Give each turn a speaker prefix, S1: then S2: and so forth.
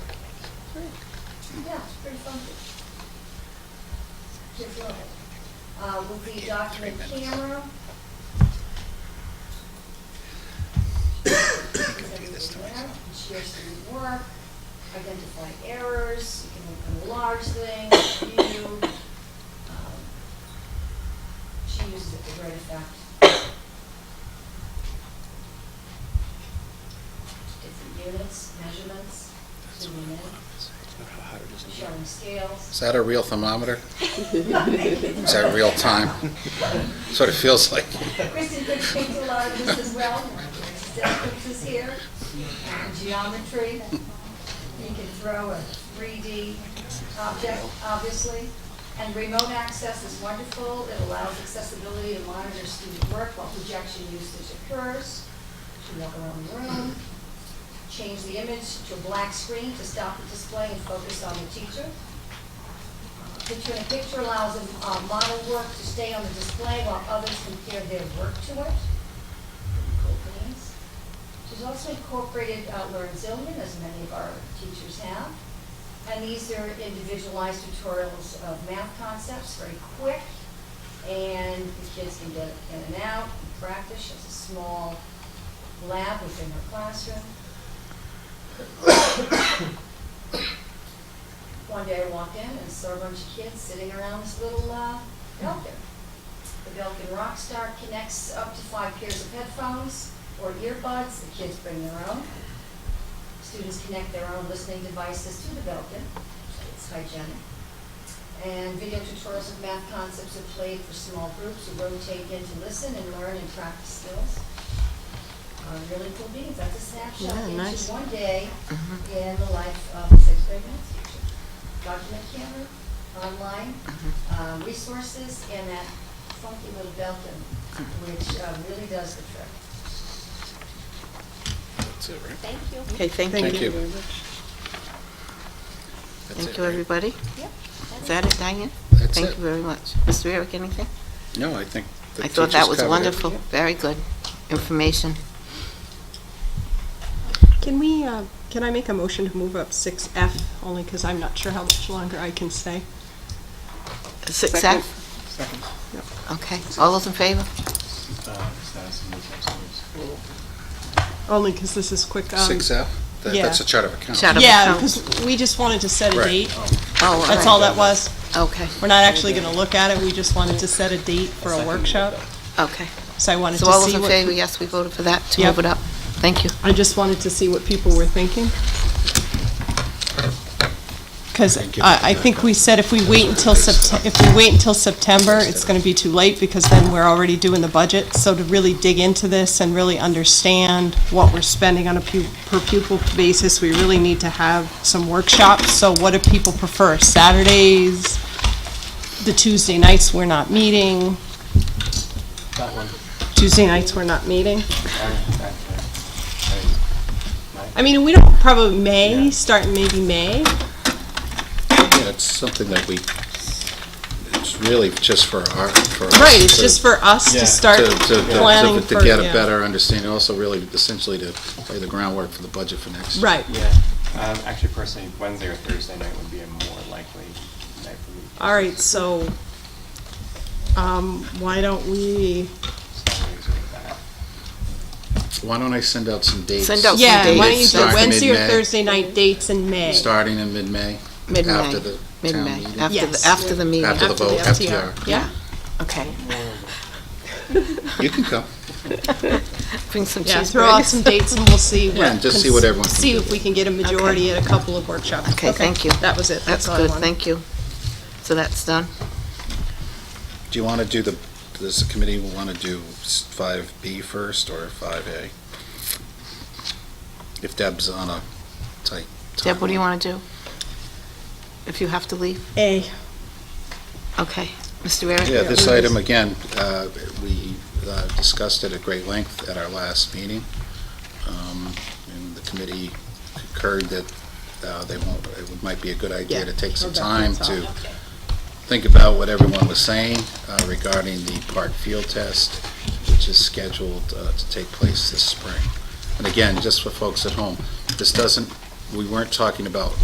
S1: Yeah, it's pretty funky. Just love it. Uh, with the document camera. You can do this to myself. Share student work, identify errors, you can enlarge things, view. um, She uses it to great effect. Different units, measurements, zooming in showing
S2: Is
S1: scales.
S2: that a real thermometer? Is that real time? Sort of feels like.
S1: Kristen could speak to a lot of this as well. Distance is here, and geometry. You can throw a 3D object, obviously. And remote access is wonderful. It allows accessibility to monitor student work while projection usage occurs. You can walk around the room, change the image to a black screen to stop the display and focus on the teacher. Picture in a picture allows a uh, model work to stay on the display while others compare their work to it. Pretty Cool things. She's also incorporated uh, Learn Zillman, as many of our teachers have. And these are individualized tutorials of math concepts, very quick. And the kids can get in and out, and practice. She has a small lab within her classroom. One day I walked in and saw a bunch of kids sitting around this little uh, Belkin. The Belkin Rockstar connects up to five pairs of headphones or earbuds. The kids bring their own. Students connect their own listening devices to the Belkin. It's hygienic. And video tutorials of math concepts are played for small groups who rotate in to listen and learn and practice skills. Uh, Really cool meetings. That's a snapshot
S3: Yeah,
S1: into
S3: nice.
S1: one day in Mm-hmm. the life of a sixth grade math teacher document camera, online, uh, resources, and that funky little Belkin, which uh, really does the trick.
S2: That's it, right?
S1: Thank you.
S3: Okay, thank you.
S2: Thank you. That's
S3: Thank
S2: it,
S3: you,
S2: right?
S3: everybody.
S1: Yep.
S3: Is that it, Diane?
S2: That's
S3: Thank
S2: it.
S3: you very much. Mr. Eric, anything?
S2: No, I think the
S3: I thought that
S2: teachers
S3: was
S2: covered it.
S3: wonderful. Very good information.
S4: Can we, uh, can I make a motion to move up 6F, only because I'm not sure how much longer I can stay?
S3: Six
S5: Second.
S3: F?
S5: Second.
S3: Okay. All those in favor?
S4: Only because this is quick. um,
S2: Six F? That-
S4: yeah.
S2: That's a chart of accounts.
S3: Shout out.
S4: Yeah, because we just wanted to set a
S2: Right.
S4: date.
S3: Oh,
S4: That's all that was.
S3: Okay,
S4: We're not actually going to look at it, we just wanted to set a date for a workshop.
S3: okay.
S4: So I wanted to
S3: So all those
S4: see
S3: in
S4: what,
S3: favor, yes, we voted for that, to
S4: Yep.
S3: move it up. Thank you.
S4: I just wanted to see what people were thinking. Because I, I think we said if we wait until Sept, if we wait until September, it's going to be too late because then we're already doing the budget. So to really dig into this and really understand what we're spending on a pu, per pupil basis, we really need to have some workshops. So what do people prefer? Saturdays, the Tuesday nights we're not meeting?
S5: That one.
S4: Tuesday nights we're not meeting? I
S5: I
S4: mean, we don't, probably May, start in maybe May.
S2: Yeah, it's something that we, it's really just for our, for us.
S4: Right, it's
S2: to-
S4: just for us
S5: Yeah.
S4: to start
S2: to- to- to-
S4: planning
S2: to-
S4: for,
S2: To get a
S4: yeah.
S2: better understanding, also really essentially to lay the groundwork for the budget for next. year.
S4: Right,
S5: Yeah, um, actually personally, Wednesday or Thursday night would be a more likely night for me.
S4: all right, so, um, why don't we,
S5: Saturdays are bad.
S2: Why don't I send out some dates?
S3: Send out- Some
S4: yeah, why don't you
S3: dates.
S4: do
S2: Start in
S4: Wednesday or
S2: mid-May.
S4: Thursday night dates in May?
S2: Starting in mid-May?
S3: Mid-May.
S2: After the town
S3: Mid-May,
S2: meeting?
S3: after the,
S4: Yes.
S3: after the meeting.
S2: After the vote, FTR.
S4: Yeah,
S3: Okay.
S2: You can come.
S3: Bring some
S4: yeah, throw out some
S3: cheeseburgers.
S4: dates and we'll see what.
S2: Yeah, and just see what
S4: cons-
S2: everyone can
S4: See
S2: do.
S4: if we can get a majority at a couple of workshops.
S3: Okay, thank you.
S4: That was it,
S3: That's
S4: that's all I
S3: good,
S4: wanted.
S3: thank you. So that's done?
S2: Do you want to do the, does the committee want to do five B first or five A? If Deb's on a tight.
S3: Deb, what do you
S2: timeline.
S3: want to do? If you have to leave?
S4: A,
S3: Okay. Mr. Barrett?
S2: Yeah, this
S4: Yeah, we
S2: item, again, uh, we uh, discussed it at great length at our last meeting. Um, And the committee concurred that uh, they won't, it might be a good idea
S4: Yeah,
S2: to take some
S4: Rebecca,
S2: time
S4: that's
S2: to
S4: all.
S2: think about what everyone was saying uh, regarding the park field test, which is scheduled uh, to take place this spring. And again, just for folks at home, this doesn't, we weren't talking about